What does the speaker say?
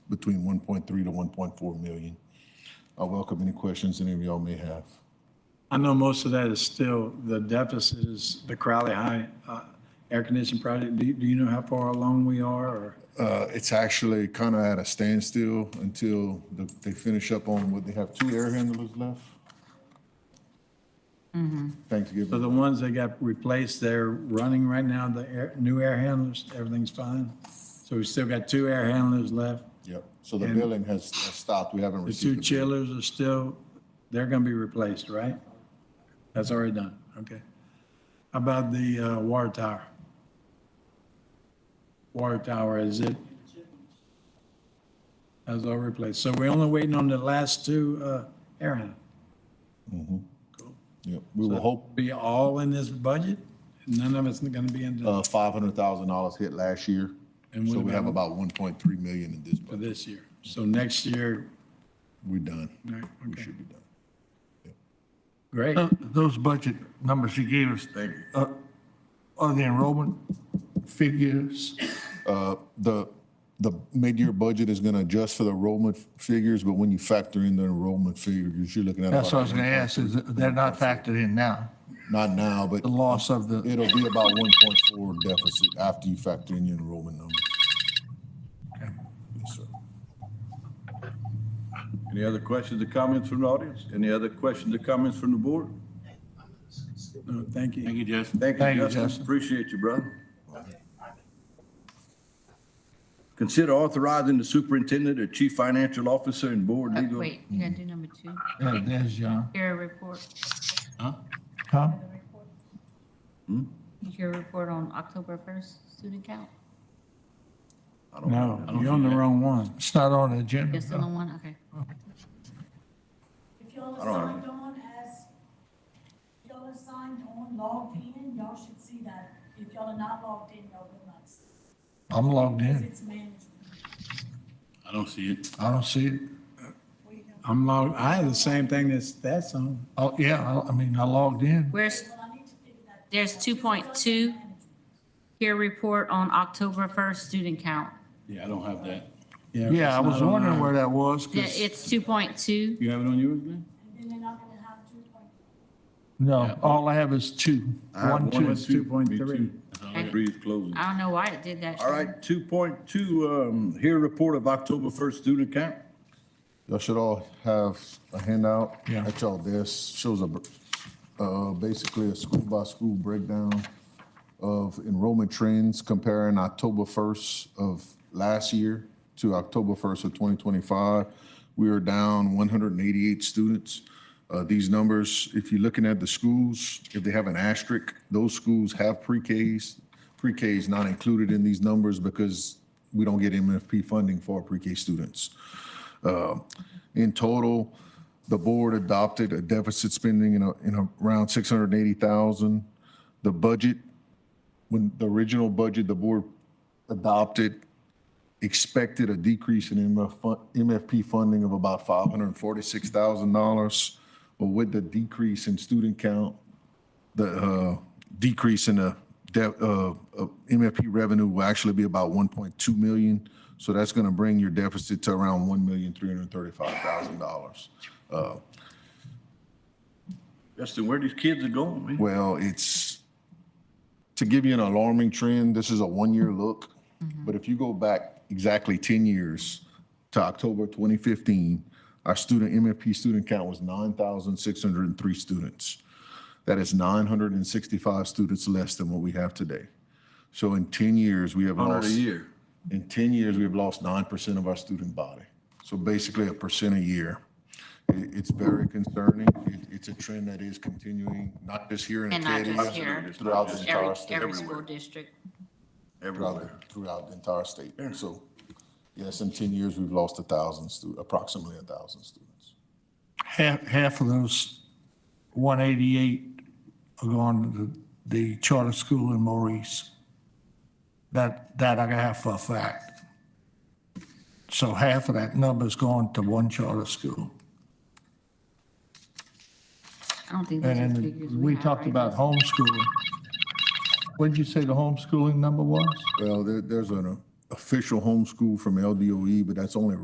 between 1.3 to 1.4 million. I welcome any questions any of y'all may have. I know most of that is still, the deficit is the Crowley High uh, Air Conditioning Project. Do, you- do you know how far along we are or? Uh, It's actually kind of at a standstill until the- they finish up on, what, they have two air handlers left? So Thanksgiving. the ones that got replaced, they're running right now, the air, new air handlers, everything's fine. So we still got two air handlers left. Yep, so the billing has has stopped, we haven't The two received. the bill. chillers are still, they're gonna be replaced, right? That's already done, okay. How about the uh, water tower? Water tower, is it? That's all replaced. So we're only waiting on the last two uh, air handlers. Yep, We will hope Be all in this budget? None of it's gonna be in the- uh, $500,000 hit last year, And so what we have about- about 1.3 million in this for budget. this year. So next year, We're done. all right, We okay, should be done. great. Tho- Those budget numbers you gave us, uh, are the enrollment figures? Uh, The, the mid-year budget is going to adjust for the enrollment f- figures, but when you factor in the enrollment figures, you're looking at. That's what I about- was going to ask, is that they're not factored in now, Not now, but the loss of the, it'll be about 1.4 deficit after you factor in your enrollment numbers. Yes, sir. Any other questions or comments from the audience? Any other questions or comments from the board? No, Thank you. you, Justin. Thank Thank you, you, Justin. Justin. Appreciate you, brother. Consider authorizing the superintendent or chief financial officer and board Uh, legal. Wait, you gotta do number two, yeah, there's uh, John. your report, Huh? your report on October first student count, I don't know. No, you're on the wrong one. It's not on the agenda. yes, on one, okay. If y'all I are don't signed on as, y'all are signed on, logged in, y'all should see that. If y'all are not logged in, y'all will not see, I'm logged because in. it's management. I don't see it. I don't see it. I'm logged, I have the same thing that's, that's on. Oh, yeah, I- I mean, I logged in. Where's, Well, I need to figure that. there's two point two, peer report on October first student count. Yeah, I don't have that. Yeah, I it's was not on wondering our- where that was, Yeah, 'cause- it's two point two, You have it on yours, Glenn? And then they're not gonna have two point no, all I have is two. I have One, one two. and It's two point three. Breathe closing. I don't know why it did that. All right, two point two, um, here report of October first student count. Y'all should all have a handout Yeah. at y'all desk, shows a, br- uh, basically a school by school breakdown of enrollment trends comparing October first of last year to October first of twenty twenty-five. We are down one hundred and eighty-eight students. Uh, these numbers, if you're looking at the schools, if they have an asterisk, those schools have pre-Ks. Pre-K is not included in these numbers because we don't get MFP funding for pre-K students. In total, the board adopted a deficit spending in, a- in around 680,000. The budget, when the original budget the board adopted, expected a decrease in MF fun- MFP funding of about $546,000. But with the decrease in student count, the uh, decrease in the de- uh, uh, MFP revenue will actually be about 1.2 million. So that's going to bring your deficit to around $1,335,000. Justin, where these kids are going, man? Well, it's, to give you an alarming trend, this is a one-year look. Mm-hmm. But if you go back exactly 10 years to October 2015, our student, MFP student count was 9,603 students. That is 965 students less than what we have today. So in 10 years, we have Hundred lost. a year. In 10 years, we've lost 9% of our student body. So basically a percent a year. It- It's very concerning. It- It's a trend that is continuing, not just here in And not Acadian, just here, throughout the entire every, state. every school district. Everywhere. Throughout, throughout the entire state. So yes, in 10 years, we've lost a 1,000 stu, approximately a 1,000 students. Half, half of those 188 are going to the the charter school in Maurice. That, that I have for a fact. So half of that number's going to one charter school. I don't think those are And figures then we we have, talked right? about homeschooling. What'd you say the homeschooling number was? Well, there, there's an uh, official homeschool from LDOE, but that's only